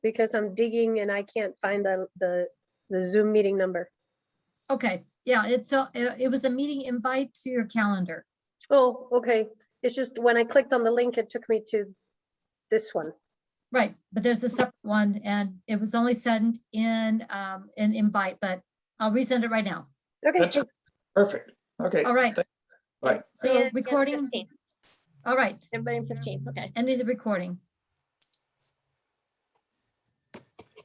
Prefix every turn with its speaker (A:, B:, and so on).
A: because I'm digging and I can't find the, the, the Zoom meeting number.
B: Okay, yeah, it's, a- it it was a meeting invite to your calendar.
A: Oh, okay. It's just when I clicked on the link, it took me to this one.
B: Right, but there's a separate one and it was only sent in, um, an invite, but I'll resend it right now.
A: Okay,
C: That's perfect. Okay.
B: All right.
C: thank- Right.
B: So
D: And- and
B: recording,
D: 15,
B: all right,
D: Everybody in fifteen, okay.
B: ending the recording.